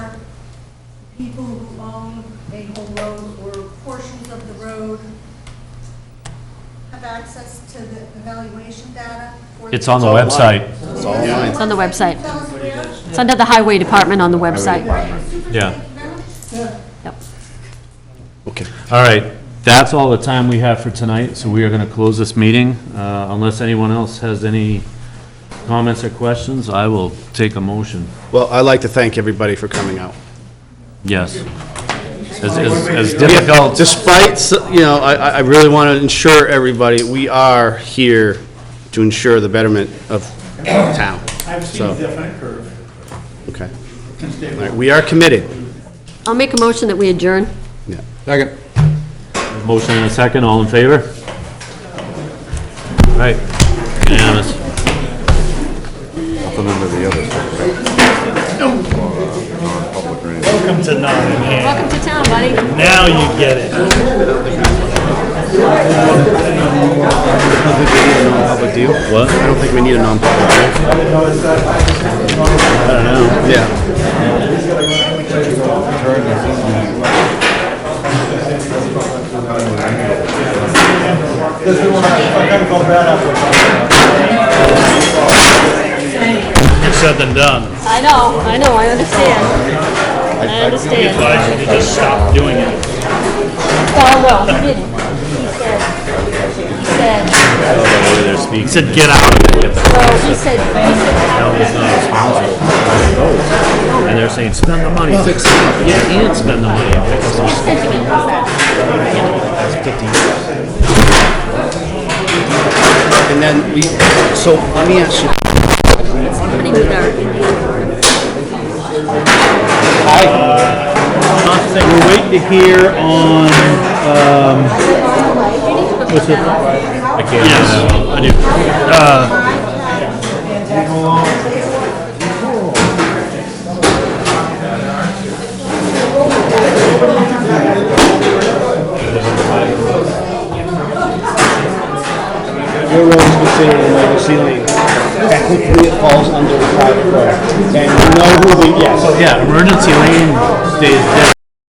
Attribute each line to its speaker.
Speaker 1: people who own a whole road or portions of the road have access to the evaluation data? for
Speaker 2: It's on the
Speaker 3: It's online.
Speaker 2: website.
Speaker 3: It's online.
Speaker 4: It's on the website.
Speaker 1: Tell us where?
Speaker 4: It's under the highway department on the website.
Speaker 2: Yeah.
Speaker 4: Yep.
Speaker 3: Okay.
Speaker 2: All right, that's all the time we have for tonight, so we are going to close this meeting. Uh, Unless anyone else has any comments or questions, I will take a motion.
Speaker 3: Well, I'd like to thank everybody for coming out.
Speaker 2: Yes. As- As as difficult,
Speaker 3: Despite, s- you know, I, I I really want to ensure everybody, we are here to ensure the betterment of town.
Speaker 5: I've seen
Speaker 3: So-
Speaker 5: a definite curve
Speaker 3: Okay.
Speaker 5: since day
Speaker 3: All
Speaker 5: one.
Speaker 3: right, we are committed.
Speaker 4: I'll make a motion that we adjourn.
Speaker 3: Yeah.
Speaker 6: Second.
Speaker 2: motion and a second, all in favor? All right, unanimous.
Speaker 7: Welcome to Nottingham.
Speaker 4: Welcome to town, buddy.
Speaker 7: Now you get it.
Speaker 3: Public deal? What? I don't think we need a non-public. I don't know. Yeah.
Speaker 7: It's said than done.
Speaker 4: I know, I know, I understand. I understand.
Speaker 7: But I should have just stopped doing it.
Speaker 4: Well, no, he didn't. He said, he said,
Speaker 2: Speak.
Speaker 7: He said, get out of it. Get the
Speaker 4: well, he said, he said,
Speaker 7: hell is not responsible. And they're saying, spend the money, fix it. up." Yeah, and spend the money, fix it.
Speaker 4: he said to me, what's that?
Speaker 3: And then we, so let me ask you,
Speaker 4: Somebody do that.
Speaker 7: We're waiting to hear on, um, what's it? I can't. Yes, I do. Uh,
Speaker 8: Your road is considered a legacy lane. Technically, it falls under the private road. And you know who the, yes.
Speaker 7: yeah, emergency lane stays there.